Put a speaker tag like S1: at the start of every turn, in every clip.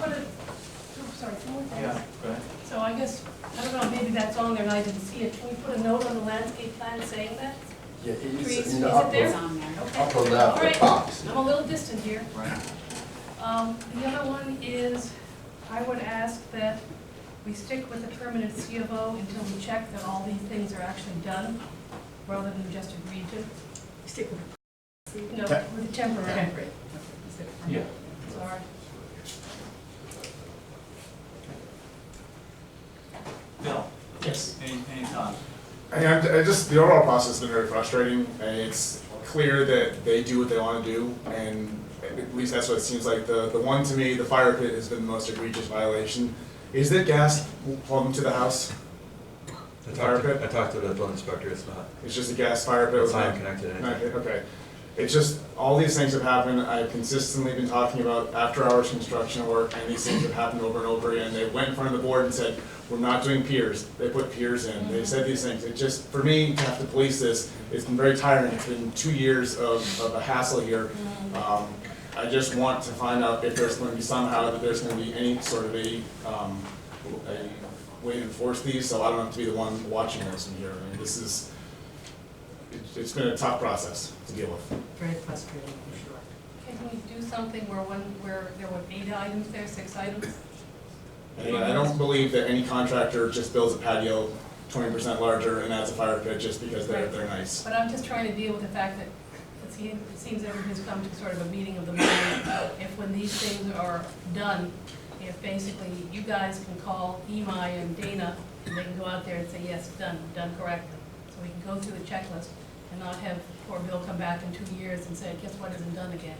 S1: oh,
S2: Yeah,
S1: plans.
S2: right.
S1: So I guess, I don't know, maybe that's on there and I didn't see it. Can we put a note on the landscape plan saying that?
S3: Yeah,
S1: Trees,
S3: it's
S1: is
S3: in
S1: it
S3: the
S1: there?
S3: upper,
S4: on there.
S1: Okay.
S3: upper
S1: All
S3: left,
S1: right.
S3: the box.
S1: I'm a little distant here.
S2: Right.
S1: Um, The other one is, I would ask that we stick with the permanent C of O until we check that all these things are actually done, rather than just agreed to,
S4: Stick with
S1: you know, with the temporary.
S4: temporary.
S2: Yeah.
S1: Sorry.
S2: Bill,
S5: Yes.
S2: any, any thoughts?
S6: I, I'm- I just the overall process has been very frustrating, and it's clear that they do what they want to do, and at least that's what it seems like. The the one to me, the fire pit has been the most egregious violation. Is there gas plumbed to the house?
S7: I talked, to, I talked to the building inspector, it's not,
S6: It's just a gas fire pit.
S7: it's
S6: with
S7: not
S6: no-
S7: connected to anything.
S6: Okay, okay. It's just, all these things have happened, I've consistently been talking about after-hours construction work, and these things have happened over and over again. They went in front of the board and said, we're not doing piers, they put piers in, they said these things. It just, for me, to have to police this, it's been very tiring, it's been two years of, of a hassle here. Um, I just want to find out if there's gonna be somehow, that there's gonna be any sort of a, um, a way to enforce these, so I don't have to be the one watching this from here. I mean, this is, it's, it's been a tough process to deal with.
S4: Very frustrating, for sure.
S1: Can we do something where one, where there were eight items there, six items?
S6: And again, I don't believe that any contractor just builds a patio twenty percent larger and adds a fire pit just because they're, they're nice.
S1: But I'm just trying to deal with the fact that it seems, it seems everybody's come to sort of a meeting of the mind. If when these things are done, if basically you guys can call Imai and Dana, and they can go out there and say, yes, done, done correctly. So we can go through the checklist and not have poor Bill come back in two years and say, guess what, isn't done again.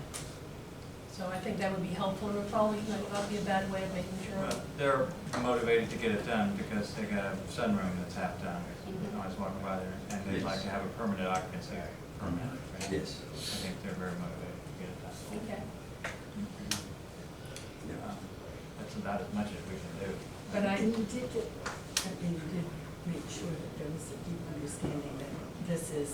S1: So I think that would be helpful, and it would probably not be a bad way of making sure.
S2: Well, Uh, They're motivated to get it done because they got a sunroom that's half done.
S1: Mm-hmm.
S2: I was walking by there and they'd like to have a permanent occupancy permit. right?
S3: Yes.
S2: I think they're very motivated to get it done.
S1: Okay.
S2: Um, That's about as much as we can do.
S1: But I,
S4: And you did get, I mean, you did make sure that there was a deep understanding that this is,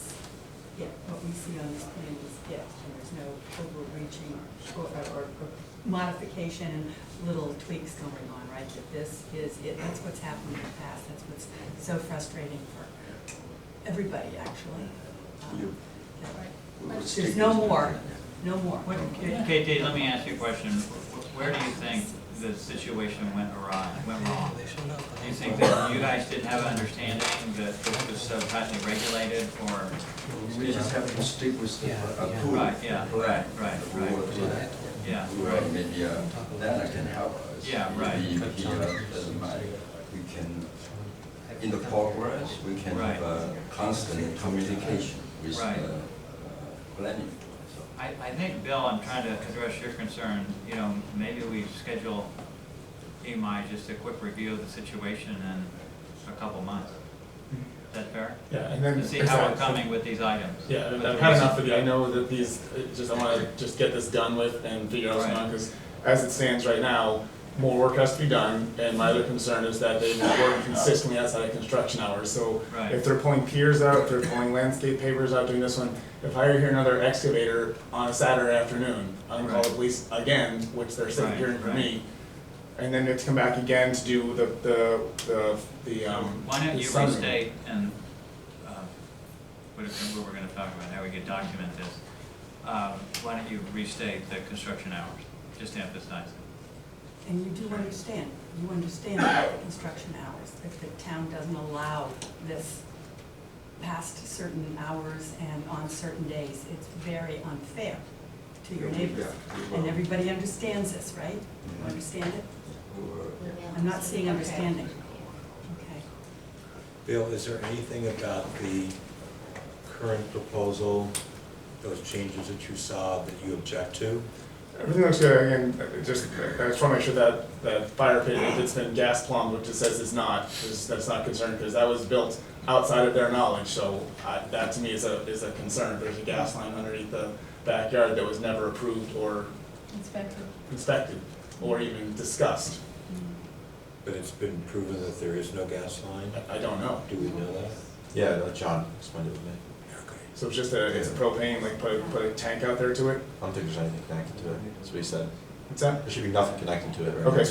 S4: yeah, what we see on this plan is, yes, and there's no overreaching or, or or modification and little tweaks going on, right? That this is it, that's what's happened in the past, that's what's so frustrating for everybody, actually. Um,
S3: You-
S4: that-
S1: right.
S3: We would stick
S4: There's no
S3: with-
S4: more, no more.
S2: What, KT, let me ask you a question. Wh- Where do you think the situation went awry, went wrong? Do you think that you guys didn't have an understanding that this was so tightly regulated or?
S3: We just have to stick with the uh, approval.
S2: Right, yeah, right, right,
S3: We
S2: right.
S3: will do that.
S2: Yeah,
S3: We will,
S2: right.
S3: Maybe, uh, Dana can help us.
S2: Yeah, right.
S3: Maybe he, uh, doesn't mind. we can, in the progress, we can
S2: Right.
S3: have uh, constant communication with the
S2: Right.
S3: uh, planning.
S2: I, I think, Bill, I'm trying to address your concern, you know, maybe we schedule EMI just a quick review of the situation in a couple months. Is that fair?
S8: Yeah, and then
S2: To see how we're
S8: exactly.
S2: coming with these items.
S8: Yeah, and I've had enough of it. I know that these,
S6: uh,
S8: it just, I wanna just get this done with and figure out what's going on, because as it stands right now, more work has to be done, and my other concern is that they've been working consistently outside of construction hours, so
S2: Right.
S6: If they're pulling piers out, if they're pulling landscape pavers out doing this one, if I hear another excavator on a Saturday afternoon, I'm gonna call the
S2: Right.
S6: police again, which they're sitting
S2: Right,
S6: here for
S2: right.
S6: me. And then it's come back again to do the, the, the, the, um.
S2: Why don't
S6: the
S2: you
S6: sunroom.
S2: restate and, um, what if- what we're gonna talk about, how we could document this. Um, Why don't you restate the construction hours, just to emphasize it?
S4: And you do understand, you understand about the construction hours, if the town doesn't allow this past certain hours and on certain days, it's very unfair to your neighbors.
S3: Yeah, we
S4: And
S3: will.
S4: everybody understands this, right?
S3: Yeah.
S4: Understand it?
S3: We will, yeah.
S4: I'm not seeing understanding. Okay.
S9: Bill, is there anything about the current proposal, those changes that you saw that you object to?
S6: Everything looks good, again, I just, I just wanna make sure that, that fire pit, if it's been gas plumbed, which it says it's not, is, that's not concerned, because that was built outside of their knowledge, so I, that to me is a, is a concern, there's a gas line underneath the backyard that was never approved or
S1: Inspector.
S6: inspected, or even discussed,
S9: But it's been proven that there is no gas line?
S6: I, I don't know.
S9: Do we know that?
S7: Yeah, John explained it to me.
S9: Okay.
S6: So it's just a, it's a propane, like, put, a- put a tank out there to it,
S7: I don't think there's anything connected to it, that's what he said.
S6: what's that?
S7: There should be nothing connected to it, right?
S6: Okay,